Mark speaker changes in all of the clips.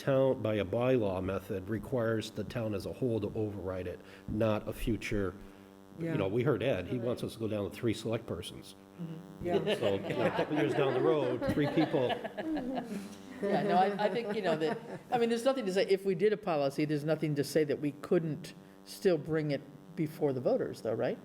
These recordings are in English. Speaker 1: town, by a bylaw method requires the town as a whole to override it, not a future, you
Speaker 2: Yeah.
Speaker 1: know, we heard Ed, he wants us to go down to three select persons.
Speaker 2: Yeah,
Speaker 1: So, you know, a couple years down the road, three people,
Speaker 3: Yeah, no, I, I think, you know, that, I mean, there's nothing to say, if we did a policy, there's nothing to say that we couldn't still bring it before the voters, though, right?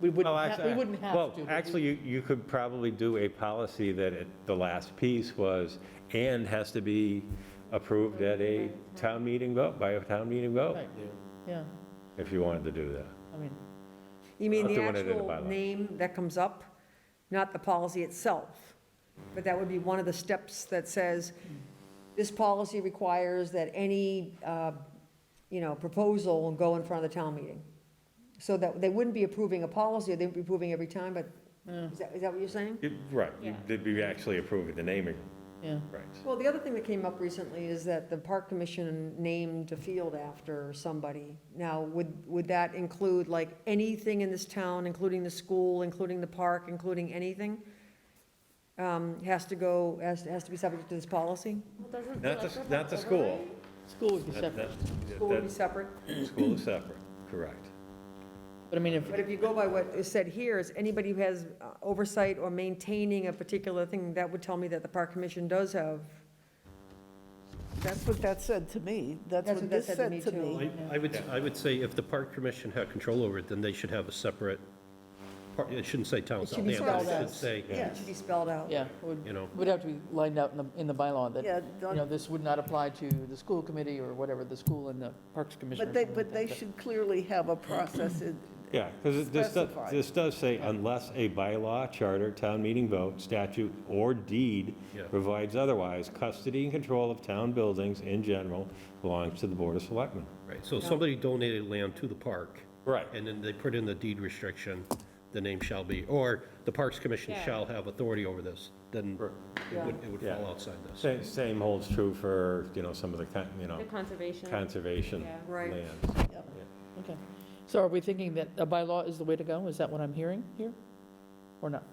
Speaker 3: We wouldn't,
Speaker 4: Well,
Speaker 3: ha- we
Speaker 4: actually-
Speaker 3: wouldn't have
Speaker 4: Well,
Speaker 3: to. but we-
Speaker 4: actually, you, you could probably do a policy that it- the last piece was, and has to be approved at a town meeting vote, by a town meeting vote,
Speaker 3: Right, Yeah,
Speaker 4: if you wanted to do that.
Speaker 3: I mean,
Speaker 2: you mean
Speaker 4: Not
Speaker 2: the
Speaker 4: doing it in the
Speaker 2: actual
Speaker 4: bylaw.
Speaker 2: name that comes up, not the policy itself. But that would be one of the steps that says, this policy requires that any, uh, you know, proposal will go in front of the town meeting. So that, they wouldn't be approving a policy, they'd be approving every time, but is that, is that what you're saying?
Speaker 4: Right, they'd be actually approving the naming
Speaker 3: yeah.
Speaker 4: rights.
Speaker 2: Well, the other thing that came up recently is that the park commission named a field after somebody. Now, would, would that include like anything in this town, including the school, including the park, including anything? Um, has to go, has, has to be subject to this policy?
Speaker 4: Not the, not the school.
Speaker 3: School would be
Speaker 4: That-
Speaker 3: separate,
Speaker 4: that-
Speaker 2: School would be
Speaker 4: that-
Speaker 2: separate.
Speaker 4: School is separate, correct.
Speaker 3: but I mean, if,
Speaker 2: But if you go by what is said here, is anybody who has uh, oversight or maintaining a particular thing, that would tell me that the park commission does have.
Speaker 5: That's what that said to me. That's
Speaker 2: That's
Speaker 5: what
Speaker 2: what that
Speaker 5: this
Speaker 2: said to me,
Speaker 5: said to
Speaker 2: too.
Speaker 5: me.
Speaker 1: I I would, I would say if the park commission had control over it, then they should have a separate, par- it shouldn't say town
Speaker 2: It should be
Speaker 1: Southampton, it
Speaker 2: spelled
Speaker 1: should
Speaker 5: out.
Speaker 1: say,
Speaker 2: It should be spelled out.
Speaker 3: yeah, it would,
Speaker 1: you know.
Speaker 3: would have to be lined out in the, in the bylaw that,
Speaker 5: Yeah,
Speaker 3: you know, this would not apply to the school committee or whatever, the school and the Parks Commission.
Speaker 5: But
Speaker 3: or
Speaker 5: they,
Speaker 3: something
Speaker 5: but
Speaker 3: like
Speaker 5: they
Speaker 3: that.
Speaker 5: should clearly have a process. in-
Speaker 4: Yeah, because this does,
Speaker 5: Specified.
Speaker 4: this does say, unless a bylaw, charter, town meeting vote, statute, or deed
Speaker 1: Yeah.
Speaker 4: provides otherwise, custody and control of town buildings in general belongs to the Board of Selectmen.
Speaker 1: Right, so somebody donated land to the park.
Speaker 4: Right.
Speaker 1: And then they put in the deed restriction, the name shall be, or the Parks Commission shall have authority over this, then it would, it would
Speaker 4: Yeah.
Speaker 1: fall outside this.
Speaker 4: Same, same holds true for, you know, some of the, con- you know,
Speaker 6: The conservation.
Speaker 4: conservation
Speaker 6: Yeah.
Speaker 2: Right.
Speaker 4: lands.
Speaker 3: Okay, so are we thinking that a bylaw is the way to go? Is that what I'm hearing here? Or not?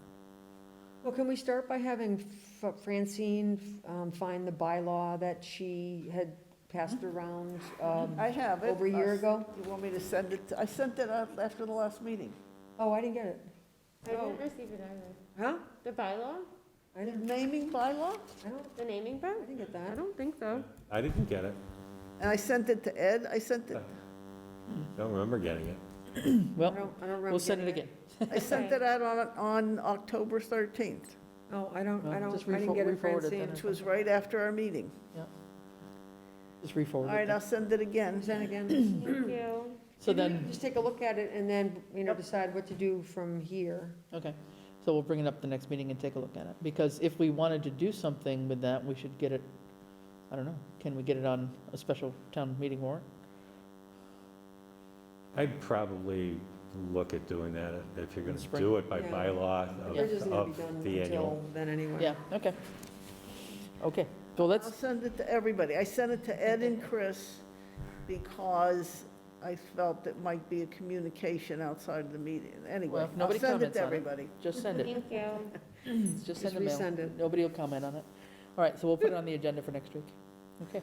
Speaker 2: Well, can we start by having F- Francine um, find the bylaw that she had passed around? um,
Speaker 5: I have it.
Speaker 2: Over a year
Speaker 5: I'll-
Speaker 2: ago?
Speaker 5: You want me to send it? to- I sent it out after the last meeting.
Speaker 2: Oh, I didn't get it.
Speaker 6: I didn't receive it either.
Speaker 2: Huh?
Speaker 6: The bylaw,
Speaker 2: I didn't,
Speaker 5: Naming bylaw?
Speaker 2: I don't,
Speaker 6: the naming
Speaker 2: I
Speaker 6: part?
Speaker 2: didn't get
Speaker 6: I
Speaker 2: that.
Speaker 6: don't think so.
Speaker 4: I didn't get it.
Speaker 5: And I sent it to Ed. I sent it,
Speaker 4: Don't remember getting it.
Speaker 2: I
Speaker 3: Well,
Speaker 2: don't, I don't remember.
Speaker 3: we'll send it
Speaker 2: getting
Speaker 3: again.
Speaker 5: I sent it out on, on October 13th,
Speaker 2: Oh, I don't, I
Speaker 3: Well,
Speaker 2: don't,
Speaker 3: just
Speaker 2: I didn't
Speaker 3: refor-
Speaker 2: get it,
Speaker 3: re-forward it then.
Speaker 2: Francine.
Speaker 5: which was right after our meeting.
Speaker 3: Just
Speaker 5: All
Speaker 3: re-forward it.
Speaker 5: right, I'll send it again.
Speaker 2: Send again.
Speaker 6: Thank you.
Speaker 3: So
Speaker 2: Maybe we
Speaker 3: then,
Speaker 2: can Just take a look at it and then, you know, decide what to do from here.
Speaker 3: okay, so we'll bring it up the next meeting and take a look at it. Because if we wanted to do something with that, we should get it, I don't know, can we get it on a special town meeting warrant?
Speaker 4: I'd probably look at doing that if you're going to
Speaker 3: Spring.
Speaker 4: do it by
Speaker 2: Yeah.
Speaker 4: bylaw
Speaker 2: We're just
Speaker 4: of-
Speaker 2: gonna
Speaker 4: of
Speaker 2: be done
Speaker 4: the annual.
Speaker 2: until then anyway.
Speaker 3: Yeah, okay. Okay, so
Speaker 5: I'll
Speaker 3: let's,
Speaker 5: send it to everybody. I sent it to Ed and Chris because I felt it might be a communication outside of the meeting.
Speaker 3: Well,
Speaker 5: Anyway,
Speaker 3: if
Speaker 5: I'll
Speaker 3: nobody
Speaker 5: send it
Speaker 3: comments
Speaker 5: to
Speaker 3: on it.
Speaker 5: everybody.
Speaker 3: just send it,
Speaker 6: Thank you.
Speaker 3: just
Speaker 2: Just
Speaker 3: send a mail.
Speaker 2: resend it.
Speaker 3: Nobody will comment on it. All right, so we'll put it on the agenda for next week. Okay.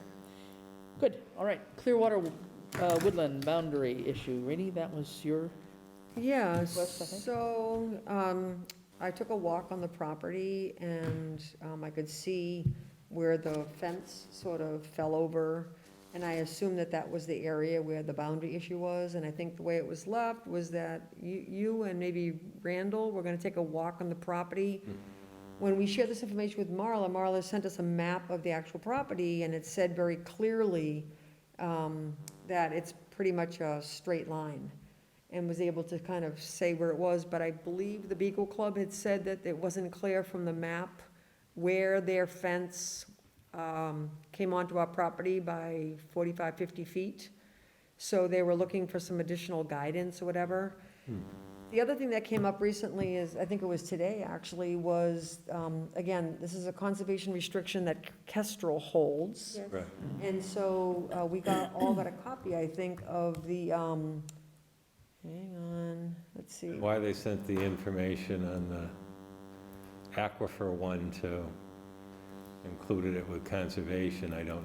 Speaker 3: Good, all right. Clearwater uh, Woodland Boundary Issue. Rainey, that was your,
Speaker 2: Yeah,
Speaker 3: West, I think.
Speaker 2: so, um, I took a walk on the property and, um, I could see where the fence sort of fell over. And I assumed that that was the area where the boundary issue was, and I think the way it was left was that you, you and maybe Randall were gonna take a walk on the property. When we shared this information with Marla, Marla sent us a map of the actual property, and it said very clearly, um, that it's pretty much a straight line and was able to kind of say where it was, but I believe the Beagle Club had said that it wasn't clear from the map where their fence um, came onto our property by 45, 50 feet. So they were looking for some additional guidance or whatever. The other thing that came up recently is, I think it was today, actually, was, um, again, this is a conservation restriction that Kestrel holds.
Speaker 6: Yes.
Speaker 4: Right.
Speaker 2: And so uh, we got, all got a copy, I think, of the, um, hang on, let's see.
Speaker 4: Why they sent the information on the aquifer one to included it with conservation, I don't